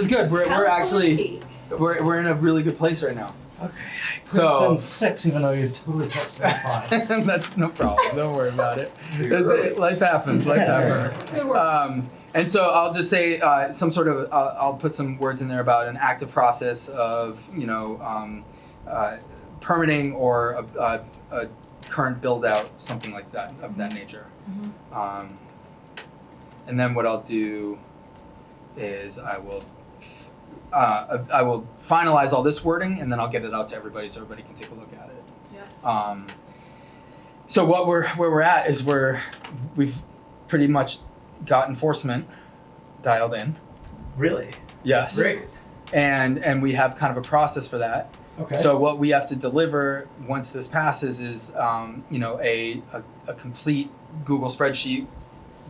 is good. We're, we're Council actually Peak. we're, we're in a really good place right now. Okay. So- So six, even though you totally texted me five. That's no problem. Don't worry about it. You're It- it- life happens. Life Yeah. happens. Good work. Um, and so I'll just say uh, some sort of I'll I'll put some words in there about an active process of you know um, uh, permitting or a, a, a current build out something like that of that Mm-hmm. nature. Um, and then what I'll do is I will uh, I will finalize all this wording and then I'll get it out to everybody so everybody can take a look at it. Um, so what we're where we're at is we're we've pretty much got enforcement dialed in. Really? Yes. Great. And and we have kind of a process for that. Okay. So what we have to deliver once this passes is um, you know a, a a complete Google spreadsheet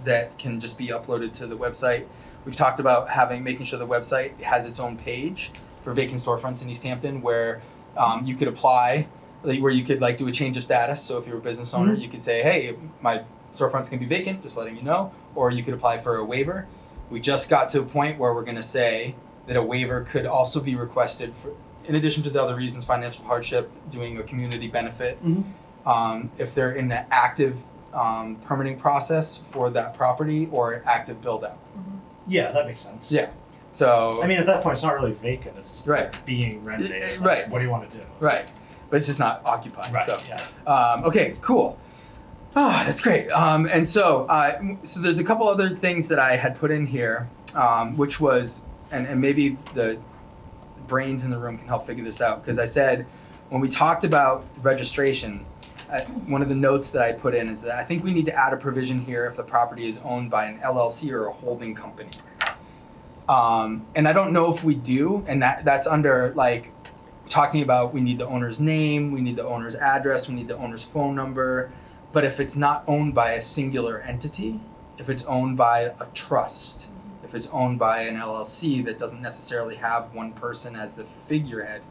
that can just be uploaded to the website. We've talked about having making sure the website has its own page for vacant storefronts in East Hampton where um, you could apply like, where you could like do a change of status. So if you're a business owner, Mm-hmm. you could say, "Hey, my storefront's gonna be vacant," just letting you know, or you could apply for a waiver. We just got to a point where we're gonna say that a waiver could also be requested for, in addition to the other reasons, financial hardship, doing a community benefit. Mhm. Um, if they're in the active um, permitting process for that property or active build out. yeah, that makes sense. Yeah. So I mean, at that point, it's not really vacant. It's Right. being rented. Like, Right. What do you want to do? right, but it's just not occupied. Right. So. Yeah. Um, okay, cool. Ah, that's great. Um, and so, uh, m- so there's a couple other things that I had put in here, um, which was, and, and maybe the brains in the room can help figure this out because I said when we talked about registration, uh, one of the notes that I put in is that I think we need to add a provision here if the property is owned by an LLC or a holding company. Um, and I don't know if we do, and that that's under like talking about we need the owner's name, we need the owner's address, we need the owner's phone number. But if it's not owned by a singular entity, if it's owned by a trust, if it's owned by an LLC that doesn't necessarily have one person as the figurehead,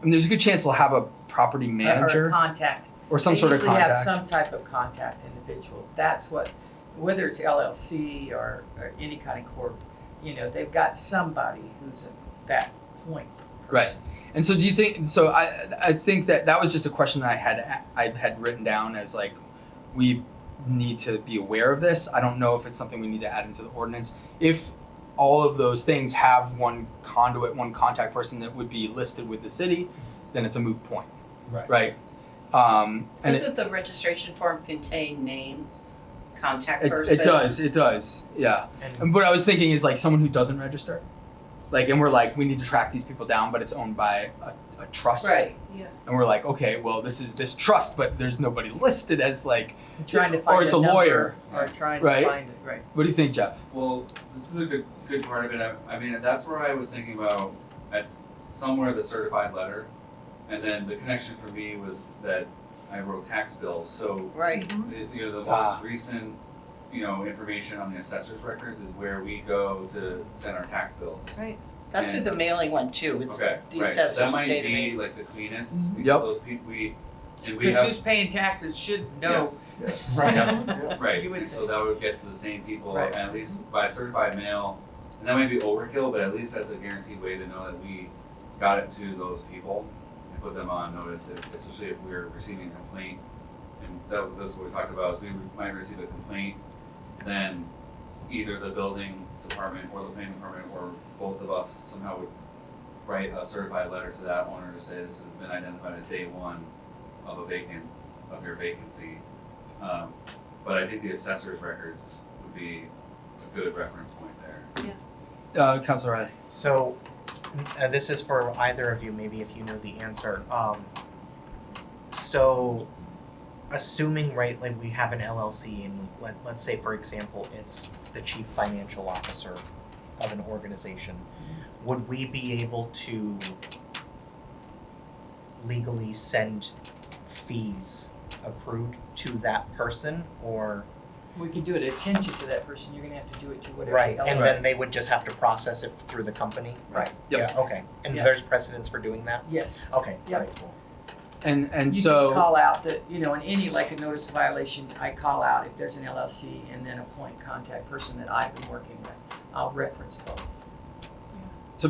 I mean, there's a good chance they'll have a property Or a manager contact. or some sort of They usually have contact. some type of contact individual. That's what, whether it's LLC or, or any kind of corp, you know, they've got somebody who's a- that point Right. person. And so, do you think? So, I I think that that was just a question that I had I had written down as like we need to be aware of this. I don't know if it's something we need to add into the ordinance. If all of those things have one conduit, one contact person that would be listed with the city, then it's a moot point, Right. right? Um, and it, Doesn't the registration form contain name, contact it, person? it does, it does, yeah. And- And what I was thinking is like someone who doesn't register, like, and we're like, we need to track these people down, but it's owned by a, a trust. Right, and we're like, okay, well, this is this trust, but there's nobody listed as like. trying to Or find it's a a number lawyer. Or trying Right. to find it, right. What do you think, Jeff? Well, this is a good good part of it. I, I mean, that's where I was thinking about at somewhere the certified letter, and then the connection for me was that I wrote tax bills. So Right. the- you know, the Ah. most recent you know information on the assessor's records is where we go to send our tax bills. That's who the mailing went to. It's okay, the right. So that assessor's might be database. Mm-hmm. like the cleanest Mhm. because Yep. those people we and we Because have who's paying taxes should know. yes, Right. right. You would so that would get to the same people Right. and at least by certified mail. And that might be overkill, but at least that's a guaranteed way to know that we got it to those people and put them on notice, if, especially if we're receiving a complaint. And that, this is what we talked about, is we might receive a complaint, then either the building department or the planning department or both of us somehow would write a certified letter to that owner to say this has been identified as day one of a vacant, of your vacancy. Um, but I think the assessor's records would be a good reference point there. Uh, Councilor Riley. So, uh, this is for either of you, maybe if you know the answer. Um, so, assuming, right, like we have an LLC, and let, let's say, for example, it's the chief financial officer of an organization, would we be able to legally send fees accrued to that person or We can do it attention to that person, you're gonna have to do it to whatever. right and LLC. then they would just have to process it through the company Right. Yep. yeah okay and Yeah. there's precedence for doing that Yes. Okay. Yep. alright, cool. And and You so just call out that, you know, in any, like a notice of violation, I call out if there's an LLC and then a point contact person that I've been working with. I'll reference both.